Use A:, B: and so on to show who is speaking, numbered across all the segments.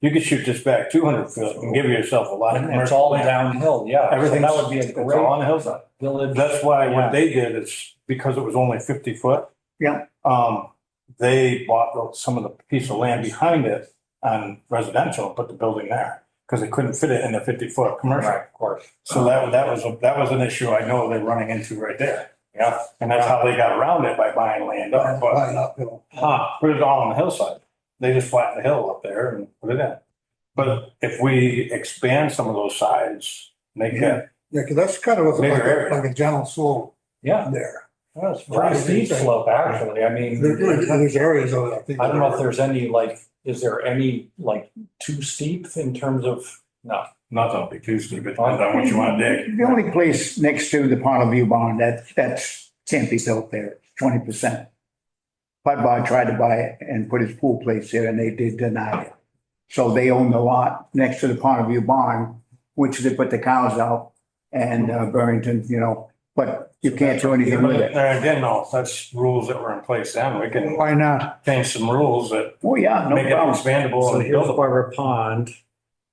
A: you could shoot this back two hundred feet and give yourself a lot of
B: And it's all
A: commercial land.
B: downhill, yeah. So
A: Everything's-
B: That would be a
A: It's all
B: great
A: on the hillside.
B: village.
A: That's why
B: Yeah.
A: what they did is because it was only fifty foot.
C: Yeah.
A: Um, they bought the- some of the piece of land behind it on residential, and put the building there because they couldn't fit it in a fifty foot commercial.
B: Right, of course.
A: So that, that was, a- that was an issue I know they're running into right there. Yeah. And that's how they got around it by buying land up, but,
C: Right uphill.
A: huh, put it all on the hillside. They just flattened the hill up there and put it in. But if we expand some of those sides, make that,
C: Yeah, because that's kind of what's
A: Bigger
C: like, a-
A: area.
C: like a gentle slope
B: Yeah,
C: there.
B: well, it's pretty steep slope, actually. I mean,
C: There- there- There's areas of it, I think.
B: I don't know if there's any, like, is there any, like, too steep in terms of, no.
A: not that it'll be too steep, it depends on what you want to dig.
D: The only place next to the Ponte View Barn, that, that's can't be built there, twenty percent. Bud Bar tried to buy it and put his pool place there and they did deny it. So they own the lot next to the Ponte View Barn, which they put the cows out and uh, Burrington, you know, but you can't do anything with it.
A: There again, no, that's rules that were in place then. We can
C: Why not?
A: change some rules that
D: Oh, yeah, no
A: make it
D: problem.
A: expandable
E: So
A: and
E: here's
A: buildable.
E: Barber Pond.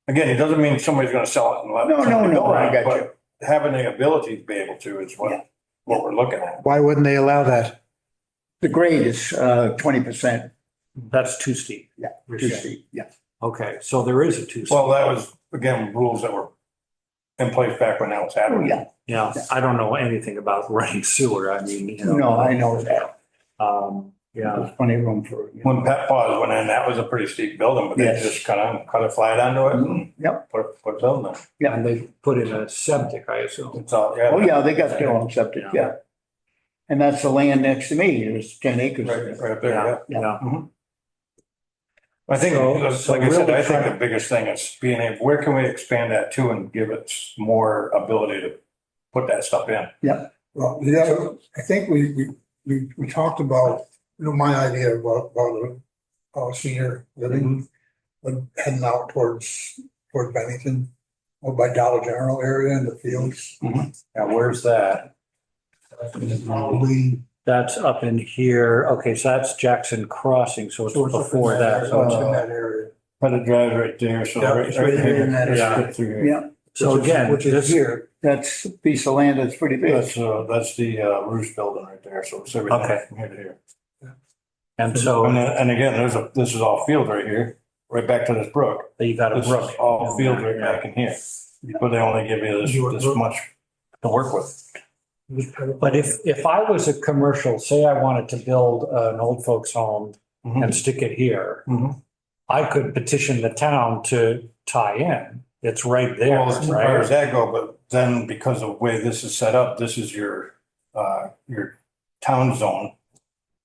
A: Again, it doesn't mean somebody's gonna sell it and let.
D: No, no,
A: somebody
D: no,
A: build
D: I
A: it,
D: got
A: but Having the ability to be able to is
D: Yeah.
A: what, what we're looking at.
C: Why wouldn't they allow that?
D: The grade is uh, twenty percent
E: That's too steep.
D: Yeah,
E: You're
D: too
E: saying.
D: steep, yeah.
E: Okay, so there is a too steep.
A: Well, that was, again, rules that were in place back when that was
D: Oh,
A: happening.
D: yeah,
E: Yeah, I don't know anything about running sewer. I mean, you know.
D: no, I know that.
E: Um, yeah,
D: There's plenty of room for it. you know.
A: When Pet Paws went in, that was a pretty steep building, but they
D: Yes. Mm-hmm,
A: just kind of cut it flat onto it and.
D: Yep.
A: Put, put a building there.
D: Yeah.
E: and they put in a septic, I assume.
A: It's all, yeah.
D: Oh, yeah, they got their own septic, yeah. And that's the land next to me, there's ten acres.
A: Right, right there, yeah.
E: Yeah, yeah.
A: I think, uh,
E: So-
A: like I said, I think the biggest thing is being able, where can we expand that to and give it more ability to put that stuff in?
C: Well, yeah, I think we, we, we, we talked about, you know, my idea about, about, uh, senior living. But heading out towards, toward Bennington, or by Dollar General area in the fields.
B: Now, where's that?
C: Probably,
E: That's up in here. Okay, so that's Jackson Crossing, so it's
C: So it's up in
E: before
C: there,
E: that.
C: so it's
E: So-
C: in that area.
A: Put a drive right there, so.
C: Yeah, it's right there in that
E: area.
A: area.
D: Yeah,
E: So
C: Which is-
E: again,
C: Which is
E: this,
C: here,
D: that's a piece of land that's pretty big.
A: That's, uh, that's the, uh, Roost building right there, so it's everything
E: Okay.
A: from here to here.
E: and
A: And,
E: so
A: then- and again, there's a, this is all field right here, right back to this brook.
E: you got a
A: This
E: brook.
A: is all field right back in here, but they only give you this, this much to work with.
E: But if, if I was a commercial, say I wanted to build an old folks home
A: Mhm.
E: and stick it here,
A: Mhm.
E: I could petition the town to tie in. It's right there,
A: Well, as far as
E: right?
A: that go, but then because of the way this is set up, this is your, uh, your town zone.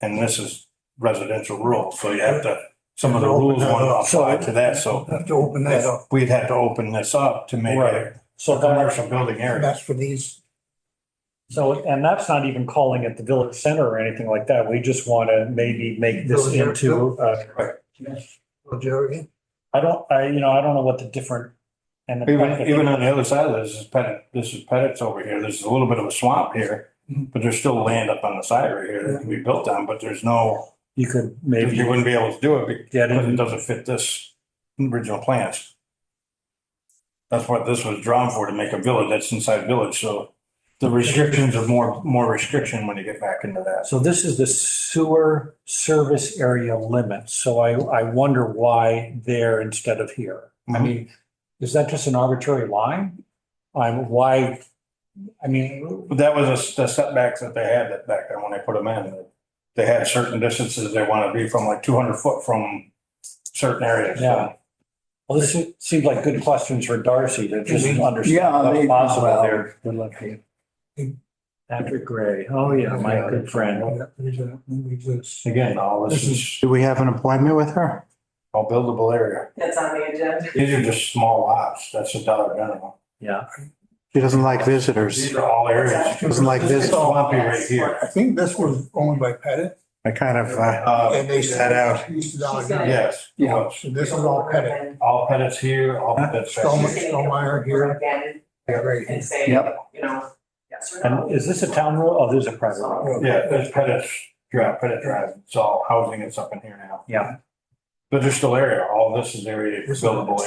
A: And this is residential rural, so you have to, some of the rules want to apply to that, so
C: have to open that up,
A: we'd have to open this up to make
E: Right.
A: it
E: So
A: a
E: that,
A: commercial building
C: and
A: area.
C: that's for these,
E: so, and that's not even calling it the village center or anything like that. We just want to maybe make this
C: Village area.
E: into, uh,
C: for Jerry.
E: I don't, I, you know, I don't know what the different. and the-
A: Even, even on the other side of this is Pettit, this is Pettit's over here, there's a little bit of a swamp here.
E: Mm-hmm.
A: But there's still land up on the side right here that can be built on, but there's no,
E: You could
A: you
E: maybe
A: wouldn't be able to do it
E: get
A: because it
E: in,
A: doesn't fit this original plans. That's what this was drawn for, to make a village, that's inside village, so the restrictions are more, more restriction when you get back into that.
E: so this is the sewer service area limit. So I, I wonder why there instead of here. I
A: Mhm.
E: mean, is that just an arbitrary line? I'm, why, I mean,
A: But that was a s- the setbacks that they had that back then when they put them in. They had certain distances they want to be from, like two hundred foot from certain areas. so-
E: Yeah. well, this seems like good questions for Darcy to just
D: Yeah,
E: understand what's
D: they-
E: possible
D: well,
E: there. Good luck to you. Patrick Gray, oh yeah, my good friend.
C: Yeah, there's a- there's a-
A: Again, all this is
D: Do we have an appointment with her?
A: all buildable area.
F: That's on the agenda.
A: These are just small lots. That's a dollar general.
E: Yeah,
G: She doesn't like visitors.
A: These are all areas.
G: Doesn't like
A: It's
G: visitors.
A: swampy right here.
C: I think this was owned by Pettit.
G: I kind of, uh,
E: Oh,
A: Uh,
C: And they
G: Set out.
C: Used to Dollar
F: She's gonna-
C: General.
A: yes.
D: Yeah.
A: yes.
C: So this is all Pettit.
A: All Pettit's here, all Pettit's. back
C: Stone-
A: here.
F: She's gonna
C: Stonemeyer here.
F: Again,
C: Yeah, right here.
F: and say,
D: Yep.
F: you know, yes or no.
E: and is this a town road? Oh, this is a private road.
C: Well,
A: Yeah, that's Pettit's Drive, Pettit Drive. It's all housing. It's up in here now.
E: Yeah.
A: But there's still area, all this is area, buildable area.